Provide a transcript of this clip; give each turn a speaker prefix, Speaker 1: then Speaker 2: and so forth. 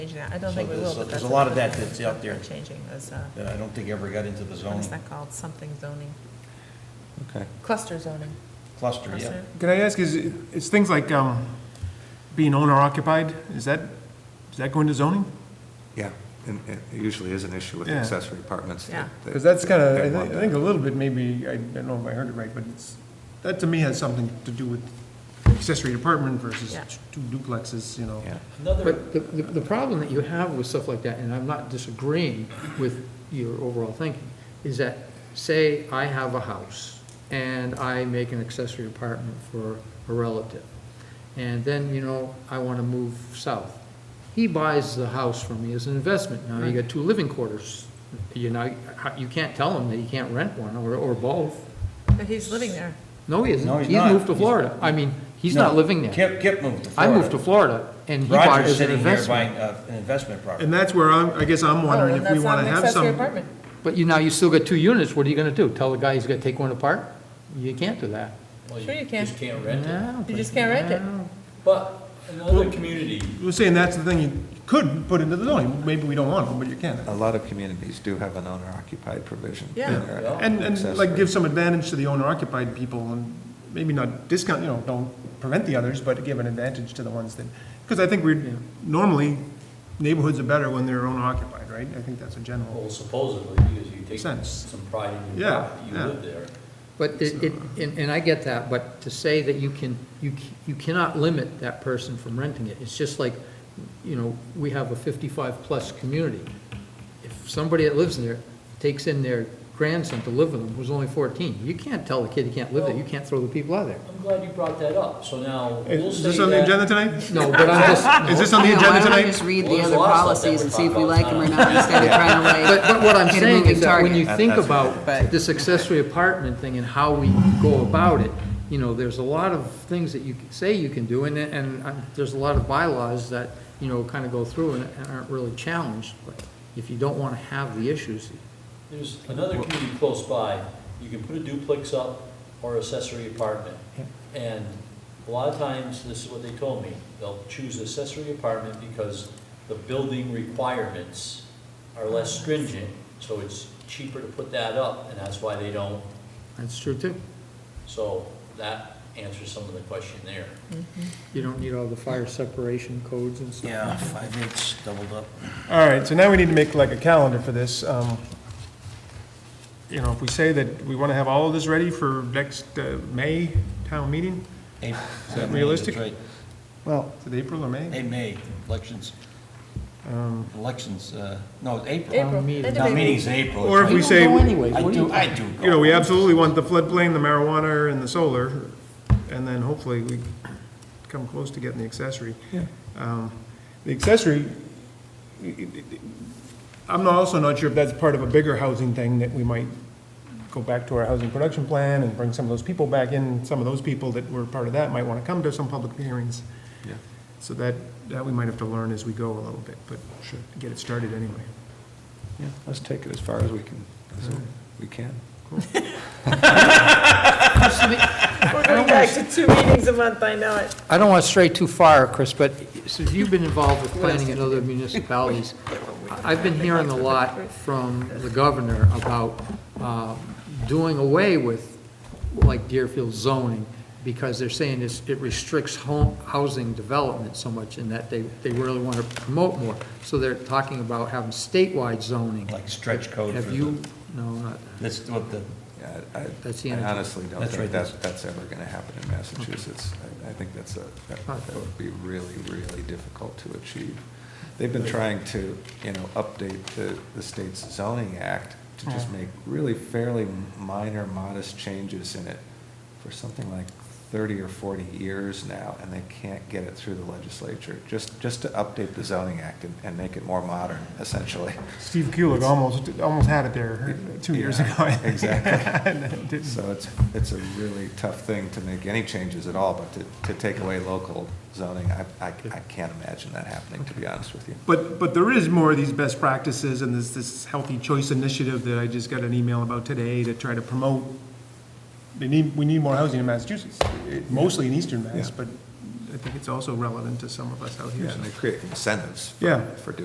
Speaker 1: changing that. I don't
Speaker 2: So
Speaker 1: think we
Speaker 2: there's
Speaker 1: will,
Speaker 2: a-
Speaker 1: but that's.
Speaker 2: there's a lot of
Speaker 1: another
Speaker 2: that
Speaker 1: thing
Speaker 2: that's out there.
Speaker 1: we're Changing is, uh,
Speaker 2: that I don't think ever got into the
Speaker 1: what
Speaker 2: zoning
Speaker 1: is that called? Something zoning,
Speaker 3: Okay.
Speaker 1: cluster zoning.
Speaker 2: cluster, yeah.
Speaker 1: Cluster?
Speaker 4: Can I ask, is, is things like um, being owner occupied, is that, does that go into zoning?
Speaker 3: Yeah, and it usually is an issue with
Speaker 4: Yeah.
Speaker 3: accessory apartments. that-
Speaker 1: Yeah.
Speaker 3: that-
Speaker 4: Because that's kind of,
Speaker 3: that
Speaker 4: I
Speaker 3: want
Speaker 4: think, I think a little bit maybe, I I don't know if I heard it right, but it's, that to me has something to do with accessory apartment versus
Speaker 1: Yeah.
Speaker 4: two duplexes, you know?
Speaker 3: that. Yeah.
Speaker 5: But the, the the problem that you have with stuff like that, and I'm not disagreeing with your overall thinking, is that, say, I have a house, and I make an accessory apartment for a relative, and then, you know, I want to move south. He buys the house from me as an investment. Now, you got two living quarters. You know, you can't tell him that you can't rent one, or, or both.
Speaker 1: But he's living there.
Speaker 5: No, he
Speaker 2: No,
Speaker 5: isn't.
Speaker 2: he's
Speaker 5: He's
Speaker 2: not.
Speaker 5: moved to
Speaker 2: He's-
Speaker 5: Florida. I mean, he's not
Speaker 2: No,
Speaker 5: living there.
Speaker 2: Kip, Kip moved to
Speaker 5: I
Speaker 2: Florida.
Speaker 5: moved to Florida, and he bought it
Speaker 2: Roger's
Speaker 5: as an
Speaker 2: sitting here
Speaker 5: investment.
Speaker 2: buying uh, an investment
Speaker 4: And
Speaker 2: property.
Speaker 4: that's where I'm, I guess I'm
Speaker 1: Oh,
Speaker 4: wondering
Speaker 1: and
Speaker 4: if we
Speaker 1: that's not
Speaker 4: want to
Speaker 1: an
Speaker 4: have
Speaker 1: accessory
Speaker 4: some.
Speaker 1: apartment.
Speaker 5: But you, now you still got two units, what are you gonna do? Tell the guy he's gonna take one apart? You can't do that.
Speaker 1: Sure you can.
Speaker 6: Just can't rent it.
Speaker 5: No,
Speaker 1: You just can't rent it.
Speaker 5: no.
Speaker 6: But another community,
Speaker 4: We're saying that's the thing you could put into the zoning, maybe we don't want to, but you can.
Speaker 3: A lot of communities do have an owner-occupied provision. in
Speaker 1: Yeah.
Speaker 3: their
Speaker 6: Yeah.
Speaker 4: And, and like
Speaker 3: accessory.
Speaker 4: give some advantage to the owner occupied people and maybe not discount, you know, don't prevent the others, but give an advantage to the ones that, because I think we're, normally neighborhoods are better when they're owner occupied, right? I think that's a general.
Speaker 6: well supposedly, because you take
Speaker 4: Sense.
Speaker 6: some pride in your
Speaker 4: Yeah,
Speaker 6: property, you
Speaker 4: yeah.
Speaker 6: live there.
Speaker 5: But it, it- and, and I get that, but to say that you can, you, c- you cannot limit that person from renting it, it's just like, you know, we have a fifty-five-plus community. If somebody that lives in there takes in their grandson to live with them, who's only fourteen, you can't tell the kid he can't live there, you can't throw the people out of there.
Speaker 6: I'm glad you brought that up, so now we'll uh,
Speaker 4: Is
Speaker 6: say
Speaker 4: this on the
Speaker 6: that.
Speaker 4: agenda tonight?
Speaker 5: No, but I'm just,
Speaker 4: Is this on the
Speaker 7: Yeah, why
Speaker 4: agenda
Speaker 7: don't we
Speaker 4: tonight?
Speaker 7: just read
Speaker 6: Well,
Speaker 7: the
Speaker 6: there's
Speaker 7: other
Speaker 6: a lot of stuff
Speaker 7: policies
Speaker 6: that
Speaker 7: and
Speaker 6: we're
Speaker 7: see if we like
Speaker 6: talking
Speaker 7: them or
Speaker 6: about.
Speaker 7: not instead of trying
Speaker 5: But,
Speaker 7: to
Speaker 5: but what I'm
Speaker 7: Hit a
Speaker 5: saying
Speaker 7: moving
Speaker 5: is that when
Speaker 7: target.
Speaker 5: you
Speaker 3: That-
Speaker 5: think
Speaker 3: that's what
Speaker 7: it is.
Speaker 5: about this accessory apartment thing and how we go about it, you know, there's a lot of things that you c- say you can do, and, and uh, there's a lot of bylaws that, you know, kind of go through and and aren't really challenged, but if you don't want to have the issues,
Speaker 6: There's another community close by, you can put a duplex up or accessory apartment. And a lot of times, this is what they told me, they'll choose accessory apartment because the building requirements are less stringent, so it's cheaper to put that up, and that's why they don't
Speaker 5: that's true too.
Speaker 6: So that answers some of the question there.
Speaker 5: You don't need all the fire separation codes and stuff.
Speaker 2: Yeah, five eighths doubled up.
Speaker 4: All right, so now we need to make like a calendar for this. Um, You know, if we say that we want to have all of this ready for next uh, May town meeting,
Speaker 2: Is
Speaker 4: that realistic?
Speaker 3: Well,
Speaker 4: is it April or May?
Speaker 2: Hey, May, elections,
Speaker 4: Um,
Speaker 2: elections, uh, no, April.
Speaker 1: April,
Speaker 5: meeting.
Speaker 1: end of
Speaker 2: No,
Speaker 1: April.
Speaker 2: meeting's April.
Speaker 4: Or if
Speaker 5: You
Speaker 4: we
Speaker 5: don't
Speaker 4: say-
Speaker 5: know anyways,
Speaker 2: I
Speaker 5: what do you-
Speaker 2: do, I do.
Speaker 4: You know, we absolutely want the floodplain, the marijuana, and the solar, and then hopefully we come close to getting the accessory. Um, The accessory, I'm not- also not sure if that's part of a bigger housing thing that we might go back to our housing production plan and bring some of those people back in. Some of those people that were part of that might want to come to some public hearings.
Speaker 3: Yeah.
Speaker 4: So that, that we might have to learn as we go a little bit, but get it started anyway.
Speaker 3: yeah, let's take it as far as we can, as we can.
Speaker 1: We're going back to two meetings a month, I know it.
Speaker 5: I don't want to stray too far, Chris, but since you've been involved with planning in other municipalities, I've been hearing a lot from the governor about uh, doing away with, like Deerfield zoning, because they're saying it's- it restricts home, housing development so much, and that they, they really want to promote more. So they're talking about having statewide zoning.
Speaker 2: Like stretch code for
Speaker 5: Have
Speaker 2: the,
Speaker 5: you, no, not,
Speaker 2: that's what the,
Speaker 3: Yeah, I-
Speaker 5: That's the
Speaker 3: I
Speaker 5: energy.
Speaker 3: honestly don't
Speaker 2: That's right.
Speaker 3: think that's, that's ever going to happen in Massachusetts. I- I think that's a, that that would be really, really difficult to achieve. They've been trying to, you know, update the, the state's zoning act to just make really fairly minor, modest changes in it for something like 30 or 40 years now, and they can't get it through the legislature, just, just to update the zoning act and, and make it more modern, essentially.
Speaker 4: Steve Kulik almost, almost had it there two years
Speaker 3: Yeah,
Speaker 4: ago.
Speaker 3: exactly.
Speaker 4: And then it didn't.
Speaker 3: So it's, it's a really tough thing to make any changes at all, but to, to take away local zoning, I, I, I can't imagine that happening, to be honest with you.
Speaker 4: But, but there is more of these best practices and there's this healthy choice initiative that I just got an email about today to try to promote. They need, we need more housing in Massachusetts, eh, mostly in eastern Mass,
Speaker 3: Yeah.
Speaker 4: but
Speaker 3: I think it's also relevant to some of us out here.
Speaker 4: Yeah,
Speaker 3: so.
Speaker 4: and they create incentives for-
Speaker 3: Yeah.
Speaker 4: for doing